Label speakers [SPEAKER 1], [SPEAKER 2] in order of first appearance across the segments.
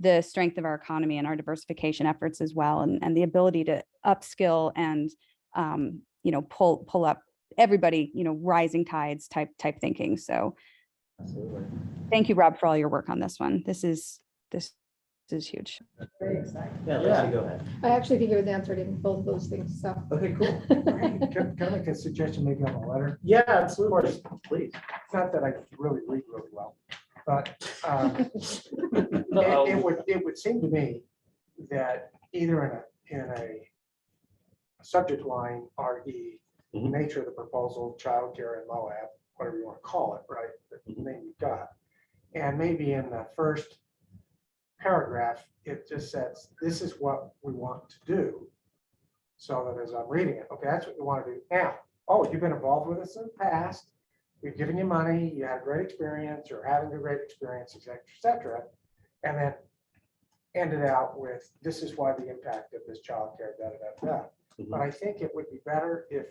[SPEAKER 1] the strength of our economy and our diversification efforts as well, and, and the ability to upskill and, um, you know, pull, pull up everybody, you know, rising tides type, type thinking. So
[SPEAKER 2] Absolutely.
[SPEAKER 1] thank you, Rob, for all your work on this one. This is, this is huge.
[SPEAKER 3] Very exciting.
[SPEAKER 2] Yeah, Lexi, go ahead.
[SPEAKER 3] I actually think it was answered in both of those things, so.
[SPEAKER 2] Okay, cool.
[SPEAKER 4] Can can I make a suggestion, maybe on the letter?
[SPEAKER 2] Yeah, absolutely. Please.
[SPEAKER 4] It's not that I really read really well, but um,
[SPEAKER 2] Uh-oh.
[SPEAKER 4] it it would, it would seem to me that either in a, in a subject line, RE,
[SPEAKER 2] Mhm.
[SPEAKER 4] nature of the proposal, childcare and Moab, whatever you want to call it, right? The
[SPEAKER 2] Mhm.
[SPEAKER 4] name you've got. And maybe in the first paragraph, it just says, this is what we want to do. So that as I'm reading it, okay, that's what you want to do now. Oh, you've been involved with this in the past. We've given you money, you had a great experience, or having a great experience, et cetera, et cetera. And then ended out with, this is why the impact of this childcare, da, da, da, da. But I think it would be better if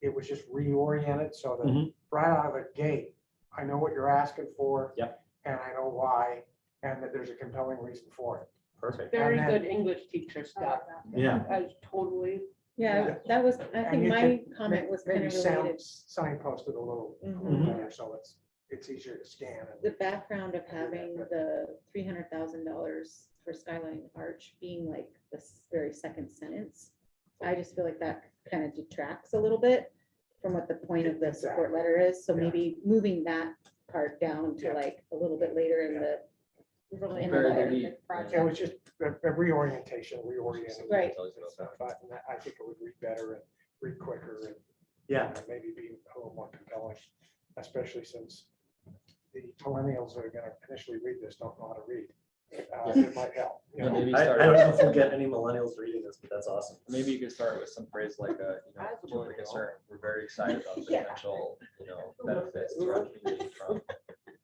[SPEAKER 4] it was just reoriented so that
[SPEAKER 2] Mhm.
[SPEAKER 4] right out of the gate, I know what you're asking for.
[SPEAKER 2] Yep.
[SPEAKER 4] And I know why, and that there's a compelling reason for
[SPEAKER 2] Perfect.
[SPEAKER 5] Very
[SPEAKER 4] And
[SPEAKER 5] good English teacher, Scott.
[SPEAKER 2] Yeah.
[SPEAKER 5] I was totally,
[SPEAKER 4] Yeah.
[SPEAKER 6] Yeah, that was, I
[SPEAKER 4] And
[SPEAKER 6] think
[SPEAKER 4] you
[SPEAKER 6] my
[SPEAKER 4] could
[SPEAKER 6] comment was
[SPEAKER 4] it. Maybe
[SPEAKER 6] kind of related.
[SPEAKER 4] sound, signposted a little
[SPEAKER 6] Mhm.
[SPEAKER 4] better, so it's, it's easier to scan. and-
[SPEAKER 6] The background of having the three hundred thousand dollars for Skyline Arch being like this very second sentence. I just feel like that kind of detracts a little bit from what the point of the support
[SPEAKER 4] Exactly.
[SPEAKER 6] letter is. So
[SPEAKER 4] Yeah.
[SPEAKER 6] maybe moving that part down to
[SPEAKER 4] Yeah.
[SPEAKER 6] like a little bit later in the. in the
[SPEAKER 2] Very
[SPEAKER 6] letter.
[SPEAKER 2] good.
[SPEAKER 4] It was just a a reorientation, reorienting.
[SPEAKER 6] Right.
[SPEAKER 4] and stuff, but I think it would read better and read quicker and
[SPEAKER 2] Yeah.
[SPEAKER 4] and maybe be a little more compelling, especially since the millennials that are gonna initially read this don't know how to read. Uh, It might help. you
[SPEAKER 7] Yeah,
[SPEAKER 4] know.
[SPEAKER 7] maybe
[SPEAKER 2] I, I
[SPEAKER 7] start
[SPEAKER 2] don't
[SPEAKER 7] with-
[SPEAKER 2] know if we'll get any millennials reading this, but that's awesome.
[SPEAKER 7] Maybe you could start with some phrase like, uh, you know,
[SPEAKER 5] As a
[SPEAKER 7] to
[SPEAKER 5] millennial.
[SPEAKER 7] the concern, we're very excited about the
[SPEAKER 6] Yeah.
[SPEAKER 7] potential, you know, benefits to our community from.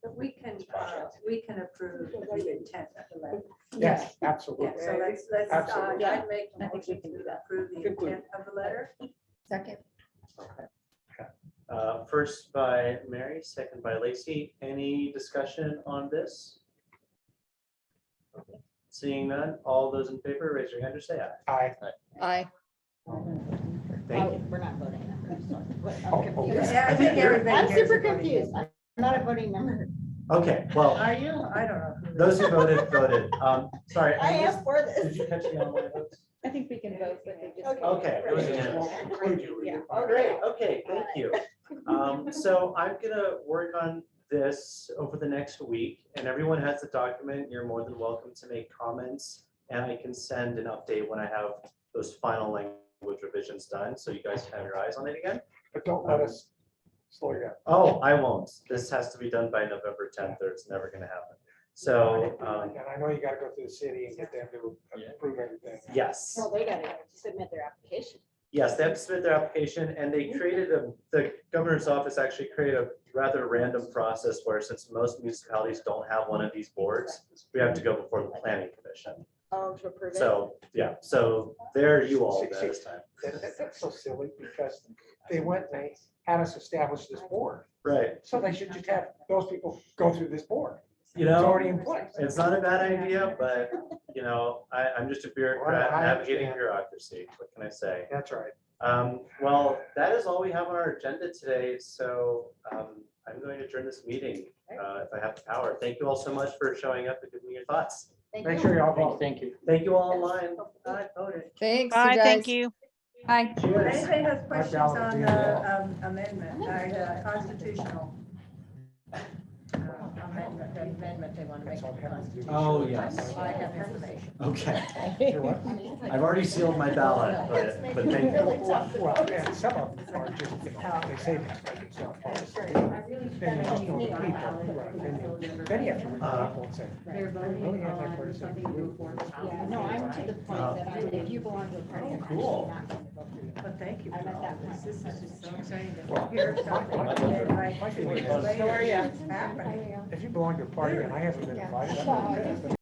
[SPEAKER 8] But we can, uh, we can approve the intent of the letter.
[SPEAKER 4] Yes,
[SPEAKER 8] Yeah,
[SPEAKER 4] absolutely.
[SPEAKER 8] so let's, let's, uh,
[SPEAKER 4] Absolutely.
[SPEAKER 8] I'd make a
[SPEAKER 6] I think we
[SPEAKER 8] motion
[SPEAKER 6] can do
[SPEAKER 8] to
[SPEAKER 6] that.
[SPEAKER 8] approve the
[SPEAKER 5] Conclude.
[SPEAKER 8] intent of the letter.
[SPEAKER 6] Second,
[SPEAKER 2] Uh, First by Mary, second by Lacey. Any discussion on this? Seeing none, all those in favor, raise your hand or say aye.
[SPEAKER 4] I,
[SPEAKER 3] Aye.
[SPEAKER 2] Thank you.
[SPEAKER 9] We're not voting members. so- but I'm
[SPEAKER 4] Um, Oh, okay.
[SPEAKER 9] confused.
[SPEAKER 8] Yeah, I think everybody
[SPEAKER 9] I'm
[SPEAKER 8] hears
[SPEAKER 9] super
[SPEAKER 8] it.
[SPEAKER 9] confused. I'm not a voting member.
[SPEAKER 2] Okay, well,
[SPEAKER 9] Are you?
[SPEAKER 8] I don't know. who
[SPEAKER 2] those who voted, voted. Um, Sorry.
[SPEAKER 9] I
[SPEAKER 2] missed-
[SPEAKER 9] am for
[SPEAKER 2] Did
[SPEAKER 9] this.
[SPEAKER 2] you catch the online votes?
[SPEAKER 6] I think we can vote, but they just.
[SPEAKER 2] Okay, it was unanimous.
[SPEAKER 4] won't include you.
[SPEAKER 6] Yeah.
[SPEAKER 2] Oh, great, okay, thank you. Um, so I'm gonna work on this over the next week, and everyone has the document, you're more than welcome to make comments. And I can send an update when I have those final language revisions done, so you guys can have your eyes on it again.
[SPEAKER 4] But don't let us slow you down.
[SPEAKER 2] Oh, I won't, this has to be done by November tenth, or it's never gonna happen. So, um,
[SPEAKER 4] And I know you gotta go through the city and get them to approve everything.
[SPEAKER 2] yes.
[SPEAKER 9] Well, they gotta submit their application.
[SPEAKER 2] Yes, they have to submit their application and they
[SPEAKER 4] Mm-hmm.
[SPEAKER 2] created a, the governor's office actually created a rather random process where since most municipalities don't have one of these boards, we have to go before the planning commission.
[SPEAKER 9] Oh, to approve it.
[SPEAKER 2] So, yeah, so there you all go this time.
[SPEAKER 4] That- that- That's so silly because they went and they had us establish this board.
[SPEAKER 2] Right,
[SPEAKER 4] So they should just have those people go through this board.
[SPEAKER 2] you
[SPEAKER 4] It's
[SPEAKER 2] know,
[SPEAKER 4] already in place.
[SPEAKER 2] it's not a bad idea, but you know, I, I'm just a bureaucrat
[SPEAKER 4] Well, I
[SPEAKER 2] navigating
[SPEAKER 4] understand.
[SPEAKER 2] bureaucracy. What can I say?
[SPEAKER 4] That's right.
[SPEAKER 2] Um, well, that is all we have on our agenda today, so, um, I'm going to adjourn this meeting, uh, if I have the power. Thank you all so much for showing up and giving me your thoughts.
[SPEAKER 4] Make sure y'all vote.
[SPEAKER 7] Thank you.
[SPEAKER 2] Thank you all online.
[SPEAKER 8] Oh, I voted.
[SPEAKER 3] Thanks,
[SPEAKER 10] Bye, thank you.
[SPEAKER 1] Bye.
[SPEAKER 8] If
[SPEAKER 4] Cheers.
[SPEAKER 8] anybody has questions
[SPEAKER 4] ballot would
[SPEAKER 8] on
[SPEAKER 4] be
[SPEAKER 8] the um, amendment, uh, constitutional uh, amendment,
[SPEAKER 9] The Amendment they want to make.
[SPEAKER 4] That's all we have to do.
[SPEAKER 2] Oh, yes.
[SPEAKER 9] I have information.
[SPEAKER 2] Okay,
[SPEAKER 4] You know what?
[SPEAKER 2] I've already sealed my ballot, but, but thank you.
[SPEAKER 4] Well, and some of them are just, you know, they say that's for themselves. Then they just don't read people, right, then you- Then you have to read
[SPEAKER 2] Uh,
[SPEAKER 4] people and say,
[SPEAKER 9] They're voting
[SPEAKER 4] Really, I think we're
[SPEAKER 9] on something to move forward. Yeah, no, I'm to the
[SPEAKER 2] Oh.
[SPEAKER 9] point that I, if you belong to a party, I'm actually
[SPEAKER 2] Cool.
[SPEAKER 9] not going to vote for you.
[SPEAKER 8] But thank you.
[SPEAKER 9] I'm
[SPEAKER 8] for
[SPEAKER 9] at
[SPEAKER 8] all
[SPEAKER 9] that
[SPEAKER 8] This
[SPEAKER 9] point.
[SPEAKER 8] This is just so exciting
[SPEAKER 4] Well,
[SPEAKER 8] to hear something.
[SPEAKER 4] my-
[SPEAKER 8] that, like,
[SPEAKER 4] my-
[SPEAKER 8] later
[SPEAKER 4] if you belong to a party and I haven't been invited, I'm not.